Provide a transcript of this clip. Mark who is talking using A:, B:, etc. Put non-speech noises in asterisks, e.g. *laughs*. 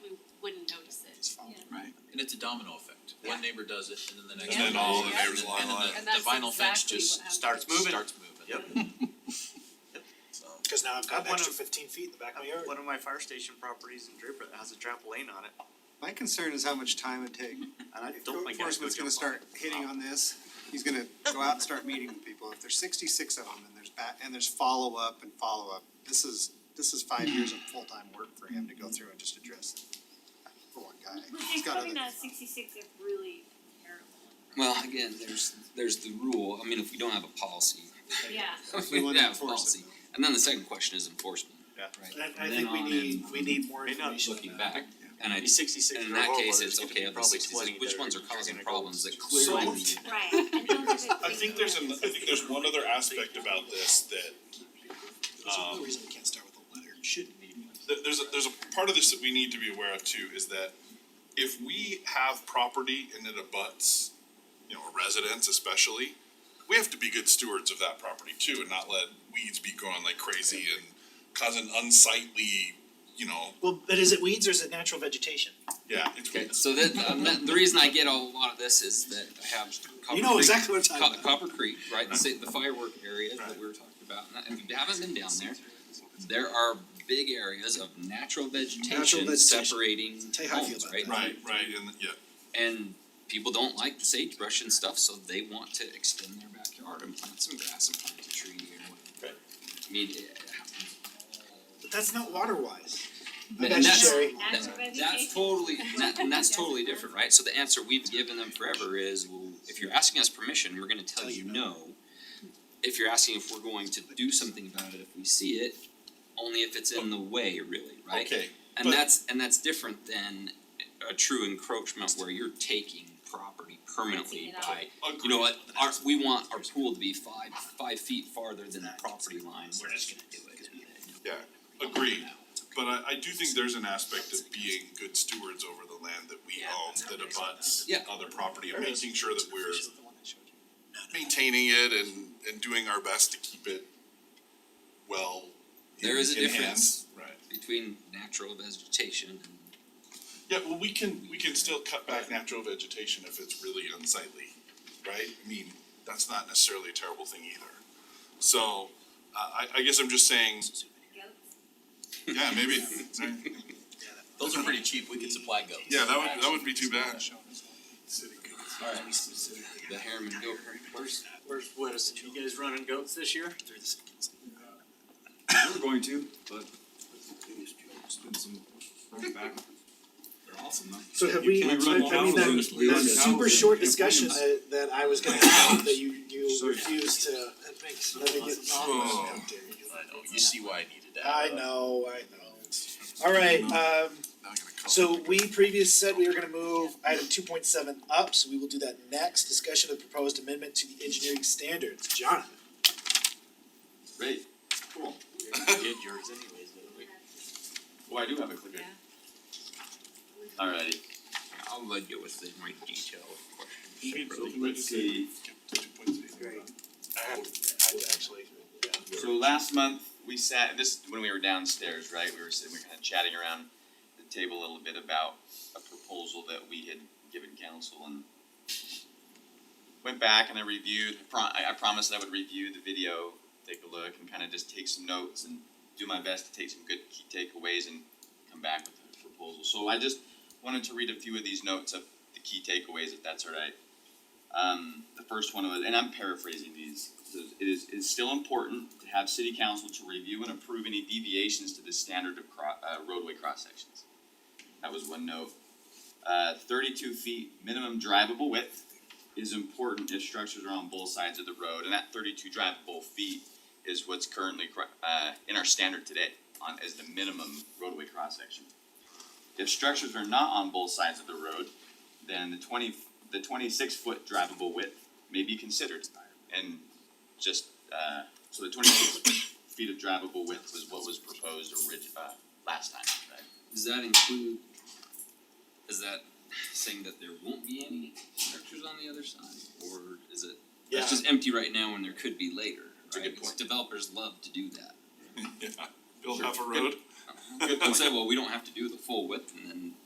A: And it's a domino effect,
B: Yeah.
A: one neighbor does it, and then the next.
B: And
A: one
B: then all
A: does
B: the
A: it,
B: neighbors
A: and
B: line
A: then
B: up.
A: the-
C: And that's
A: The vinyl fence
C: exactly
A: just
C: what happened.
A: starts moving. Starts moving.
B: Yep. Yep, so.
D: Cause now I've got an
E: One
D: extra
E: of-
D: fifteen feet in the back of my
E: Uh,
D: yard.
E: One of my fire station properties in Draper that has a trampoline on it,
F: My concern is how much time it take.
E: and I
F: If
E: don't
F: code
E: think it's
F: enforcement's gonna start hitting on this, he's gonna go out and start meeting with people. If there's sixty-six of them and there's back, and there's follow-up and follow-up, this is, this is five years of full-time work for him to go through and just address it. For one guy, he's
G: It's
F: got
G: probably
F: other.
G: not sixty-six if really terrible.
H: Well, again, there's, there's the rule, I mean, if we don't have a policy,
G: Yeah.
H: if
F: We
H: we
F: wouldn't
H: have a
F: enforce
H: policy,
F: it, though.
H: and then the second question is enforcement,
E: Yeah.
H: right?
D: I, I
H: From
D: think
H: then
D: we
H: on
D: need,
H: in,
D: we need more
E: May not
D: information.
H: Looking
D: on
H: back, and I,
E: Be sixty-six.
H: and in
E: or
H: that
E: over,
H: case,
E: there's
H: it's
E: gonna be
H: okay, of the
E: probably
H: sixty-six,
E: 20
H: which
E: that
H: ones
E: are
H: are causing
E: gonna go
H: problems that
E: soon.
H: clearly
D: So-
H: need
G: Right, I don't think it's.
I: I think there's an, I think there's one other aspect about this that,
D: that. There's no
H: uh,
I: Um,
D: reason we can't start with a letter, shouldn't need one.
I: that there's a, there's a part of this that we need to be aware of too, is that if we have property and it abuts, you know, a residence especially, we have to be good stewards of that property too and not let weeds be growing like crazy and causing unsightly, you know,
D: Well, but is it weeds or is it natural vegetation?
I: yeah, it's
H: Okay,
I: weeds.
H: so that, um, that- the reason I get a lot of this is that I have Copper
D: You know
H: Creek,
D: exactly what I'm
H: Co-
D: talking about.
H: Copper Creek, right, the sa- the firework area that
I: Right.
H: we were talking about, and I- if you haven't been down there, there are big areas of natural vegetation
D: vegetation.
H: separating
D: Tell you how I feel
H: homes,
D: about
H: right?
D: that.
I: Right, right, and yeah,
H: And people don't like the sagebrush and stuff, so they want to extend their backyard and plant some grass and plant a tree and whatever. I mean, it happens.
D: But that's not water wise.
H: And that's-
D: Necessary.
H: that-
G: Natural
H: That's
G: vegetation.
H: totally, and that, and that's totally different, right? So the answer we've given them forever is, well, if you're asking us permission, we're gonna tell you no. If you're asking if we're going to do something about it, if we see it, only if it's in the way, really, right?
I: okay,
H: And
I: But-
H: that's, and that's different than a true encroachment where you're taking property permanently
G: Taking it
H: by,
I: agree.
H: you know what, our, we want our pool to be five, five feet farther than the property line, we're just gonna do it.
I: Agreed, but I I do think there's an aspect of being good stewards over the land that we own that abuts
H: Yeah.
I: other property and making sure that we're maintaining it and and doing our best to keep it well in
H: There is a
I: in hand.
H: difference.
I: Right.
H: Between natural vegetation and
I: Yeah, well, we can, we can still cut back natural vegetation if it's really unsightly, right? I mean, that's not necessarily a terrible thing either. So, uh, I I guess I'm just saying,
G: Goats.
I: yeah, maybe,
A: Those
J: Uh-huh.
A: are pretty cheap, we could supply goats.
I: yeah, that would, that would be too bad.
H: the Harriman goat first.
E: Where's, what is it, you guys running goats this year?
J: We were going to, but it's been some rough back. They're awesome though.
D: So have we, I
J: can't
D: mean,
J: run cows in-
D: that,
J: we
D: that
J: run cows
D: super
J: in
D: short
J: campaigns.
D: discussion that, that I was gonna have, that you, you
J: So-
D: refused to, that makes, let me get.
I: Oh.
D: How dare you.
A: I know, you see why I needed that.
D: I know, I know. Alright, um,
I: Now I'm gonna call
D: So
I: it.
D: we previously said we were gonna move item two point seven up, so we will do that next, discussion of proposed amendment to the engineering standards, John.
J: Great,
I: *laughs*
J: cool.
E: Get yours anyways, though.
J: Oh, I do have a clicker.
C: Yeah.
J: Alrighty.
H: I'll let you with the more detailed question.
J: So let's see,
D: I have, I would actually,
J: so last month, we sat, this, when we were downstairs, right, we were sitting, we were kinda chatting around the table a little bit about a proposal that we had given council and went back and I reviewed, I pro- I I promised that I would review the video, take a look and kinda just take some notes and do my best to take some good key takeaways and come back with a proposal. So I just wanted to read a few of these notes of the key takeaways, if that's alright. Um, the first one was, and I'm paraphrasing these, it says, it is, it is still important to have city council to review and approve any deviations to the standard of cro- uh, roadway cross sections. That was one note. Uh, thirty-two feet minimum drivable width is important if structures are on both sides of the road, and that thirty-two drivable feet is what's currently, cro- uh, in our standard today on, as the minimum roadway cross section. If structures are not on both sides of the road, then the twenty, the twenty-six foot drivable width may be considered. And just, uh, so the twenty-six feet of drivable width was what was proposed orig- uh, last time, right?
H: Does that include, is that saying that there won't be any structures on the other side, or is it,
D: yeah,
H: it's just empty right now and there could be later,
J: It's a
H: right?
J: good point.
H: Developers love to do that.
I: *laughs* Yeah, build half a road.
H: And say, well, we don't have to do the full width and then